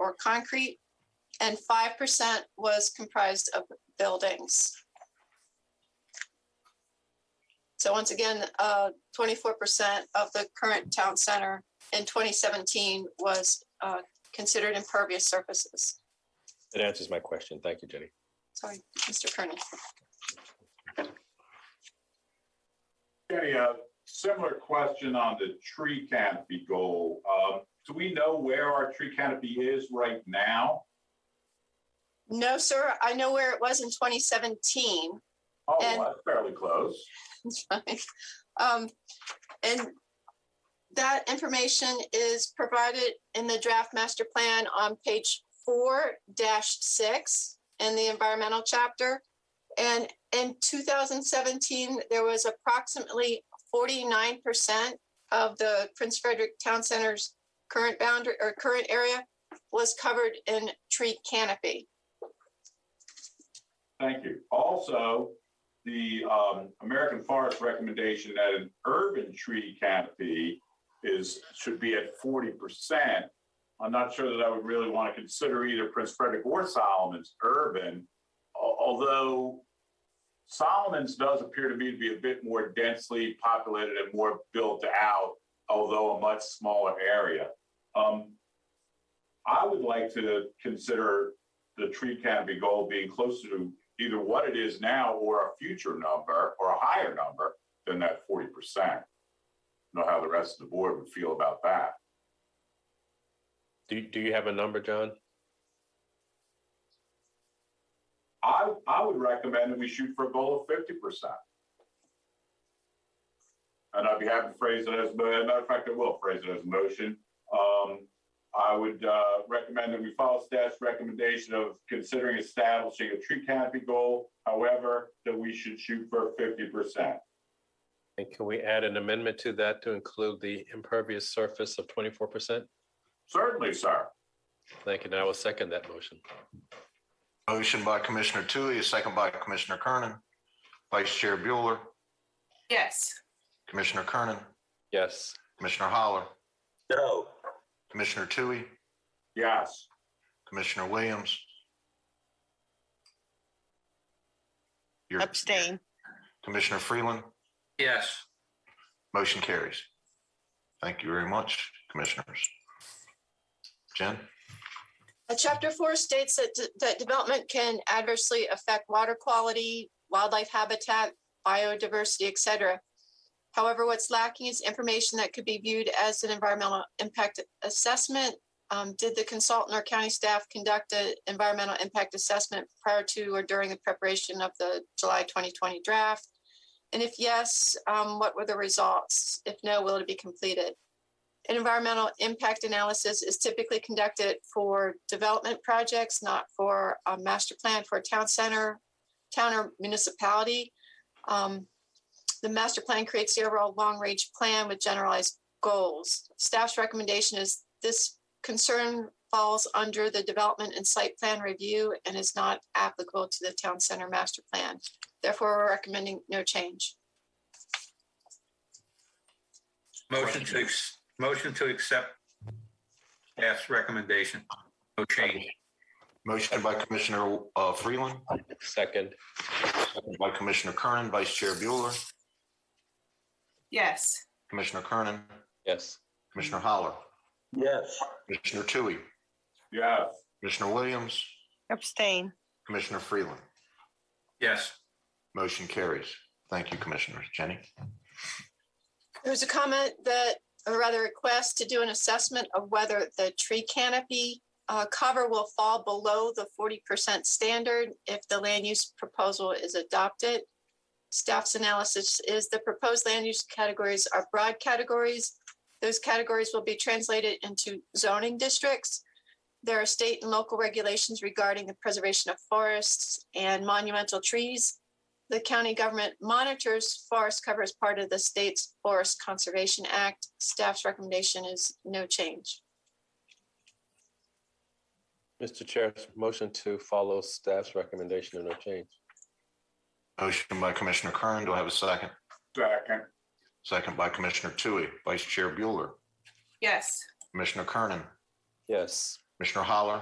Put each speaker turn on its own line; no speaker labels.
or concrete, and five percent was comprised of buildings. So once again, uh, twenty-four percent of the current town center in twenty seventeen was uh, considered impervious surfaces.
That answers my question. Thank you, Jenny.
Sorry, Mr. Kernan.
Okay, a uh, similar question on the tree canopy goal. Um, Do we know where our tree canopy is right now?
No, sir, I know where it was in twenty seventeen.
Oh, well,
And-
that's fairly close.
That's fine. Um, and that information is provided in the draft master plan on page four dash six in the environmental chapter. And in two thousand seventeen, there was approximately forty-nine percent of the Prince Frederick Town Center's current boundary or current area was covered in tree canopy.
Thank you. Also, the um, American Forest recommendation that an urban tree canopy is, should be at forty percent. I'm not sure that I would really want to consider either Prince Frederick or Solomon's urban, al- although Solomon's does appear to me to be a bit more densely populated and more built out, although a much smaller area. Um, I would like to consider the tree canopy goal being closer to either what it is now or a future number or a higher number than that forty percent. Know how the rest of the board would feel about that.
Do, do you have a number, John?
I, I would recommend that we shoot for a goal of fifty percent. And I'd be happy to phrase it as, but as a matter of fact, I will phrase it as a motion. Um, I would, uh, recommend that we follow staff's recommendation of considering establishing a tree canopy goal. However, that we should shoot for fifty percent.
And can we add an amendment to that to include the impervious surface of twenty-four percent?
Certainly, sir.
Thank you. And I will second that motion.
Motion by Commissioner Tui, a second by Commissioner Kernan. Vice Chair Bueller,
Yes,
Commissioner Kernan,
Yes.
Commissioner Holler,
No.
Commissioner Tui,
Yes.
Commissioner Williams. Your-
Abstain.
Commissioner Freeland,
Yes.
motion carries. Thank you very much, Commissioners. Jen,
Uh, Chapter four states that, d- that development can adversely affect water quality, wildlife habitat, biodiversity, et cetera. However, what's lacking is information that could be viewed as an environmental impact assessment. Um, did the consultant or county staff conduct an environmental impact assessment prior to or during the preparation of the July twenty twenty draft? And if yes, um, what were the results? If no, will it be completed? An environmental impact analysis is typically conducted for development projects, not for a master plan for a town center, town or municipality. Um, The master plan creates the overall long-range plan with generalized goals. Staff's recommendation is this concern falls under the development and site plan review and is not applicable to the town center master plan. Therefore, we're recommending no change.
Motion to, ex- motion to accept staff's recommendation. No change.
motion by Commissioner uh, Freeland,
Second.
second by Commissioner Kernan, Vice Chair Bueller,
yes,
Commissioner Kernan,
Yes.
Commissioner Holler,
Yes.
Commissioner Tui,
Yes.
Commissioner Williams,
Abstain.
Commissioner Freeland.
Yes.
Motion carries. Thank you, Commissioners. Jenny?
There was a comment that, or rather a request to do an assessment of whether the tree canopy uh, cover will fall below the forty percent standard if the land use proposal is adopted. Staff's analysis is the proposed land use categories are broad categories. Those categories will be translated into zoning districts. There are state and local regulations regarding the preservation of forests and monumental trees. The county government monitors forest cover as part of the state's Forest Conservation Act. Staff's recommendation is no change.
Mr. Chair, motion to follow staff's recommendation and no change.
Motion by Commissioner Kern. Do I have a second?
Second.
Second by Commissioner Tui. Vice Chair Bueller,
yes.
Commissioner Kernan,
Yes.
Commissioner Holler,